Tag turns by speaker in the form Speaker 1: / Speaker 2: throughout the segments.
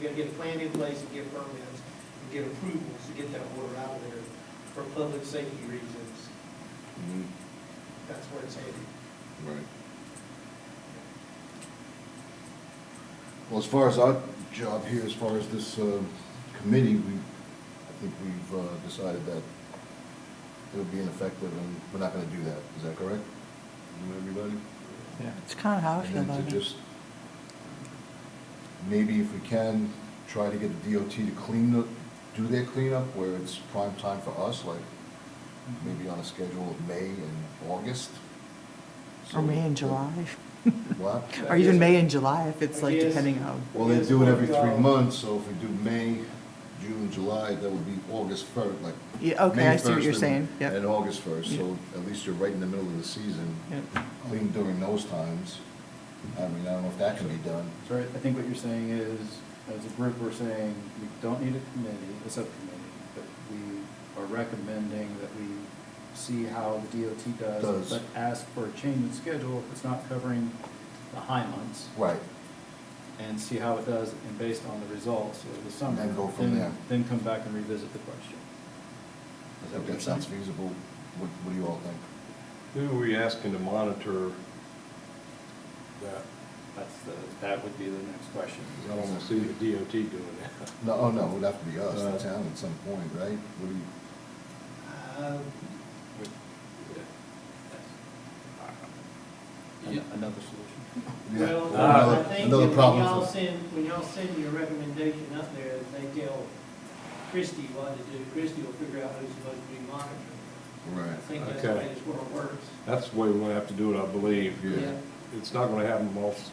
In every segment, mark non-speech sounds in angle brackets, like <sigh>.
Speaker 1: We gotta get a plan in place and get permits, and get approvals to get that water out of there for public safety reasons.
Speaker 2: Mhm,
Speaker 1: That's where it's headed.
Speaker 2: Right. Well, as far as our job here, as far as this uh, committee, we, I think we've uh, decided that it'll be ineffective and we're not gonna do that. Is that correct? You, Everybody?
Speaker 3: Yeah, it's kind of how I
Speaker 2: And
Speaker 3: feel
Speaker 2: then
Speaker 3: about
Speaker 2: to
Speaker 3: it.
Speaker 2: just, maybe if we can, try to get the DOT to clean the, do their cleanup where it's prime time for us, like
Speaker 3: Mm-hmm.
Speaker 2: maybe on a schedule of May and August.
Speaker 3: Or May and
Speaker 2: So-
Speaker 3: July,
Speaker 2: What?
Speaker 3: <laughs> or even May and July, if it's like
Speaker 1: Yes.
Speaker 3: depending on,
Speaker 2: Well, they do it every three months, so if we do May, June, July, that would be August first, like.
Speaker 3: Yeah, okay,
Speaker 2: May
Speaker 3: I see what you're
Speaker 2: 1st
Speaker 3: saying,
Speaker 2: and-
Speaker 3: yep.
Speaker 2: And August first, so
Speaker 3: Yeah.
Speaker 2: at least you're right in the middle of the season.
Speaker 3: Yep.
Speaker 2: Clean during those times. I mean, I don't know if that can be done.
Speaker 4: So I I think what you're saying is, as a group, we're saying we don't need a committee, a subcommittee, but we are recommending that we see how the DOT does,
Speaker 2: Does.
Speaker 4: but ask for a change in schedule if it's not covering the high months,
Speaker 2: Right,
Speaker 4: and see how it does, and based on the results of the summer.
Speaker 2: Then go from
Speaker 4: then-
Speaker 2: there.
Speaker 4: Then come back and revisit the question.
Speaker 2: I think that sounds feasible. What, what do you all think?
Speaker 5: Who are we asking to monitor that?
Speaker 4: That's the, that would be the next question.
Speaker 5: 'Cause I don't wanna see the DOT doing that.
Speaker 2: No, oh, no, it would have to be us,
Speaker 5: Uh,
Speaker 2: the town at some point, right? What do you,
Speaker 1: Uh,
Speaker 4: An- Another solution.
Speaker 2: yeah,
Speaker 1: Well, uh,
Speaker 2: another-
Speaker 1: I think that
Speaker 2: another
Speaker 1: when
Speaker 2: problem
Speaker 1: y'all
Speaker 2: for-
Speaker 1: send, when y'all send your recommendation up there, they tell Christie what to do, Christie will figure out who's supposed to be monitored. I
Speaker 2: Right.
Speaker 1: think that's the way
Speaker 5: Okay.
Speaker 1: this world works.
Speaker 5: That's the way we're gonna have to do it, I believe.
Speaker 2: Yeah.
Speaker 5: It's not gonna happen off,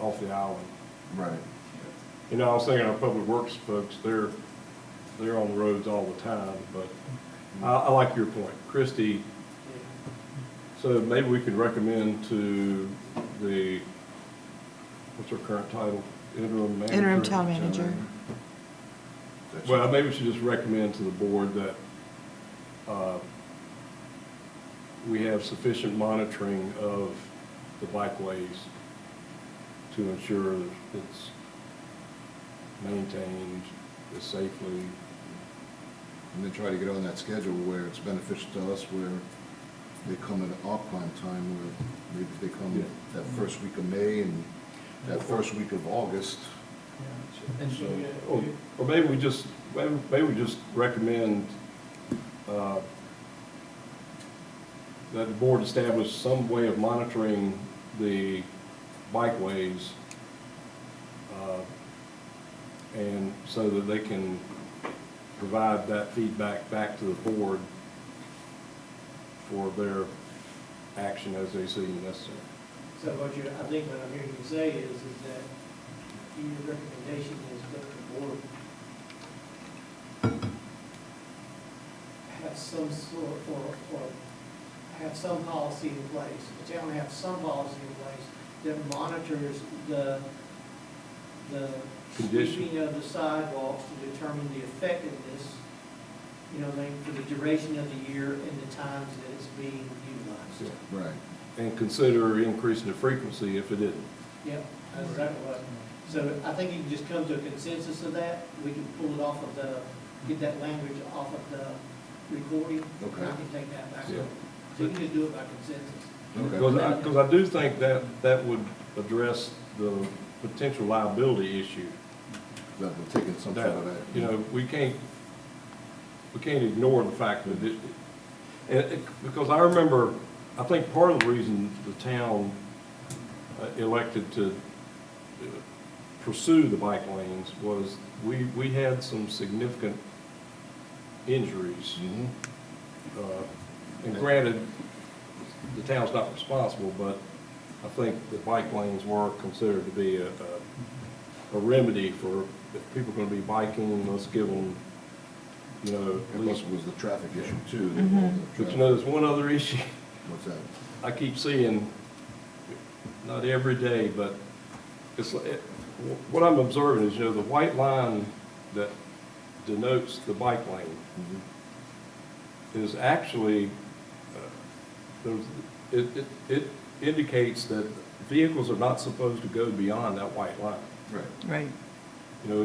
Speaker 5: off the island.
Speaker 2: Right.
Speaker 5: You know, I was thinking our public works folks, they're, they're on the roads all the time, but I, I like your point. Christie,
Speaker 1: Yeah.
Speaker 5: so maybe we could recommend to the, what's her current title? Interim manager?
Speaker 3: Interim town manager.
Speaker 2: That's-
Speaker 5: Well, maybe we should just recommend to the board that uh, we have sufficient monitoring of the bikeways to ensure that it's maintained as safely.
Speaker 2: And then try to get on that schedule where it's beneficial to us, where they come at our prime time, where maybe they come
Speaker 5: Yeah.
Speaker 2: that first week of May and that first week of August.
Speaker 1: And
Speaker 2: So-
Speaker 1: so,
Speaker 5: Or or maybe we just, maybe maybe we just recommend uh, that the board establish some way of monitoring the bikeways uh, and so that they can provide that feedback back to the board for their action as they see necessary.
Speaker 1: So what you, I think what I'm hearing you say is, is that your recommendation is that the board have some sort, or, or have some policy in place, the town have some policy in place that monitors the, the
Speaker 5: Condition.
Speaker 1: sweeping of the sidewalks to determine the effectiveness, you know, like, for the duration of the year and the times that it's being
Speaker 5: Yeah.
Speaker 1: utilized.
Speaker 2: Right.
Speaker 5: And consider increasing the frequency if it isn't.
Speaker 1: Yeah, that's exactly what. So I think you can just come to a consensus of that. We can pull it off of the, get that language off of the recording. And I
Speaker 2: Okay.
Speaker 1: can take that back.
Speaker 5: Yeah.
Speaker 1: So you can just do it by consensus.
Speaker 5: Because
Speaker 2: Okay.
Speaker 5: I, because I do think that, that would address the potential liability issue.
Speaker 2: That we're taking some sort of
Speaker 5: That,
Speaker 2: that.
Speaker 5: You know, we can't, we can't ignore the fact that it, and it- because I remember, I think part of the reason the town uh, elected to uh, pursue the bike lanes was we, we had some significant injuries.
Speaker 2: Mhm.
Speaker 5: Uh, And granted, the town's not responsible, but I think the bike lanes were considered to be a, a- a remedy for, if people are gonna be biking, let's give them, you know, at
Speaker 2: And plus
Speaker 5: least.
Speaker 2: it was the traffic issue too.
Speaker 3: Mhm.
Speaker 5: But you know, there's one other issue
Speaker 2: What's that?
Speaker 5: I keep seeing, not every day, but it's, it- what I'm observing is, you know, the white line that denotes the bike lane
Speaker 2: Mhm.
Speaker 5: is actually, uh, there's- it, it, it indicates that vehicles are not supposed to go beyond that white line.
Speaker 2: Right.
Speaker 3: right,